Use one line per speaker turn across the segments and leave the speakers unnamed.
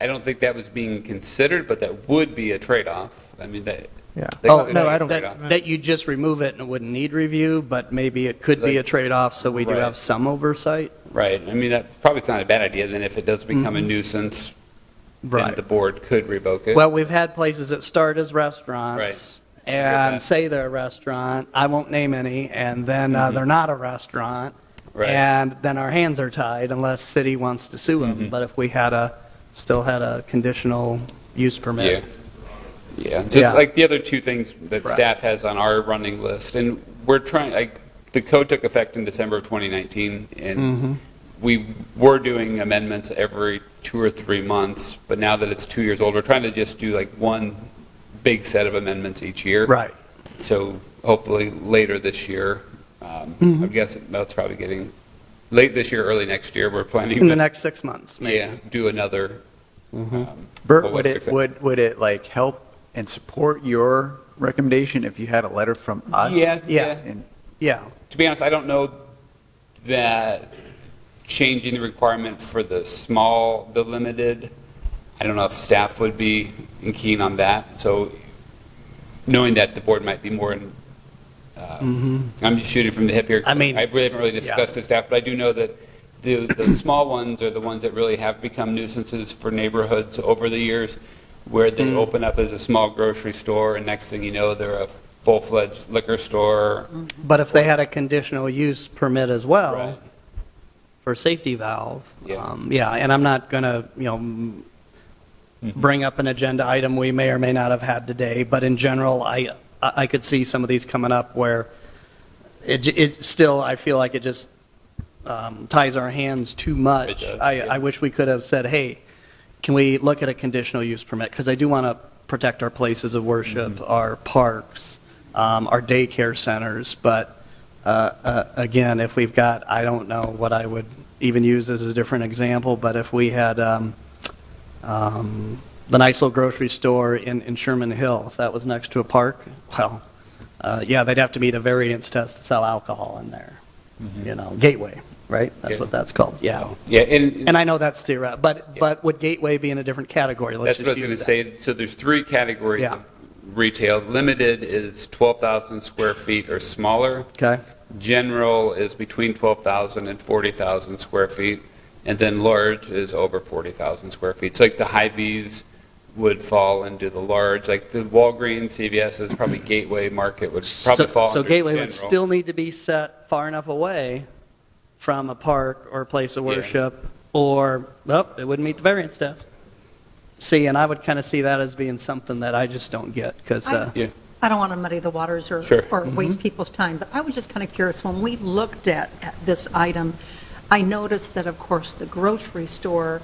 I don't think that was being considered, but that would be a trade-off. I mean, that.
Yeah.
that
Oh,
could
no,
be a
I don't-
trade-off.
That, that you just remove it and it wouldn't need review, but maybe it could be a
Like-
trade-off, so we do
Right.
have some oversight.
Right, I mean, that, probably it's not a bad idea, then if it does become a nuisance, then
Mm-hmm. Right.
the board could revoke it.
Well, we've had places that start as restaurants and
that.
say they're a restaurant, I won't name any, and then uh, they're not a restaurant.
Mm-hmm. Right,
And then our hands are tied unless city wants to sue
Mm-hmm.
them. But if we had a, still had a conditional use
yeah.
permit.
Yeah, so
Yeah.
like the other two things that
Right.
staff has on our running list, and we're trying, like, the code took effect in December of 2019,
Mm-hmm.
and we were doing amendments every two or three months, but now that it's two years old, we're trying to just do like one big set of amendments each year.
Right.
So hopefully later this year, um,
Mm-hmm.
I'm guessing that's probably getting, late this year, early next year, we're
In
planning
the
to,
next Mm-hmm. six months, maybe.
yeah, do another. um,
Bert, would
holistic
it,
set.
would, would it like help and support your recommendation if you had a letter from us?
Yeah,
Yeah.
yeah.
And
Yeah,
To be honest, I don't know that changing the requirement for the small, the limited, I don't know if staff would be keen on that. So knowing that the board might be more in, uh, I'm just shooting from the hip here.
I mean,
I really haven't really discussed the staff, but I do know that the, the small ones are the ones that really have become nuisances for neighborhoods over the years, where
Mm.
they open up as a small grocery store, and next thing you know, they're a full-fledged liquor store.
but if they had a conditional use permit as
Right.
well for safety valve,
Yeah.
um, yeah, and I'm not going to, you know, m-
Mm-hmm.
bring up an agenda item we may or may not have had today, but in general, I, I I could see some of these coming up where it, j- it still, I feel like it just um, ties our hands too much.
does,
I,
yeah.
I wish we could have said, hey, can we look at a conditional use permit? Because I do want to protect our places of worship, our parks, um, our daycare centers, but uh, uh, again, if we've got, I don't know what I would even use as a different example, but if we had um, um, the nice little grocery store in in Sherman Hill, if that was next to a park, well, uh, yeah, they'd have to meet a variance test to sell alcohol in there, you know, Gateway, right?
Yeah.
That's what that's called, yeah.
Yeah, and.
And I know that's theoretical, but,
Yeah.
but would Gateway be in a different category? Let's
That's what I
just
was going to
use that.
say. So there's three categories
Yeah.
of retail. Limited is 12,000 square feet or smaller.
Okay,
General is between 12,000 and 40,000 square feet. And then large is over 40,000 square feet. So like the Hy-Vees would fall into the large, like the Walgreens, CVS is probably Gateway Market would probably
So-
fall
So
under
Gateway would
general.
still need to be set far enough away from a park or a place of
Yeah.
worship, or, oh, it wouldn't meet the variance test. See, and I would kind of see that as being something that I just don't get, uh, because,
I-
yeah,
I don't want to muddy the waters or,
Sure. Mm-hmm.
or waste people's time, but I was just kind of curious, when we looked at, at this item, I noticed that, of course, the grocery store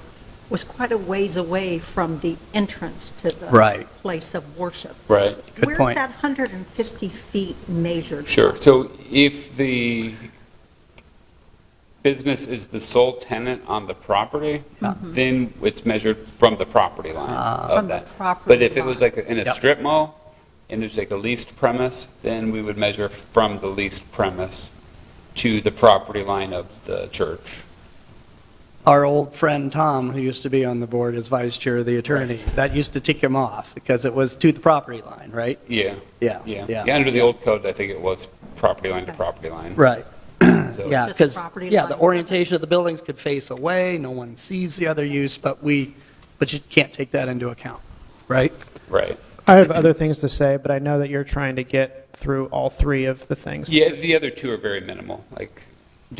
was quite a ways away from the entrance to the
Right.
place of worship.
Right.
Good
Where's
point.
that 150 feet measured?
Sure. So if the business is the sole tenant on the property, then it's measured from the property line of
Ah.
From the
that.
property
But if it was
line.
like in a
Yep.
strip mall, and there's like a leased premise, then we would measure from the leased premise to the property line of the church.
our old friend Tom, who used to be on the board as vice chair of the attorney, that used to tick him off, because it was to the property line, right?
Yeah,
Yeah,
yeah.
yeah.
Yeah, under the old code, I think it was property line to property line.
Right.
So-
Yeah,
Just
because,
property
yeah,
line
the
doesn't-
orientation of the buildings could face away, no one sees the other use, but we, but you can't take that into account, right?
Right.
I have other things to say, but I know that you're trying to get through all three of the things.
Yeah, the other two are very minimal. Like,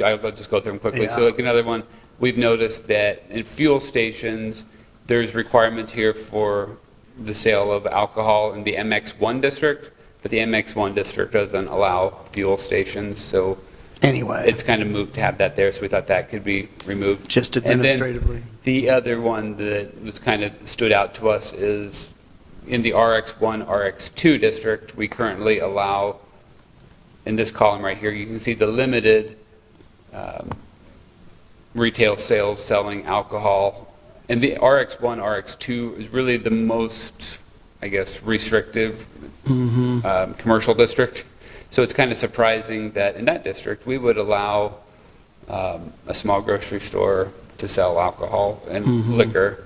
I'll I'll just go through them quickly. So
Yeah.
like another one, we've noticed that in fuel stations, there's requirements here for the sale of alcohol in the MX1 district, but the MX1 district doesn't allow fuel stations, so
Anyway,
it's kind of moot to have that there, so we thought that could be removed.
just
And then-
administratively.
The other one that was kind of stood out to us is in the RX1, RX2 district, we currently allow, in this column right here, you can see the limited um, retail sales selling alcohol. And the RX1, RX2 is really the most, I guess, restrictive um, commercial district. So it's kind of surprising that in that district, we would allow um, a small grocery store to sell alcohol and liquor,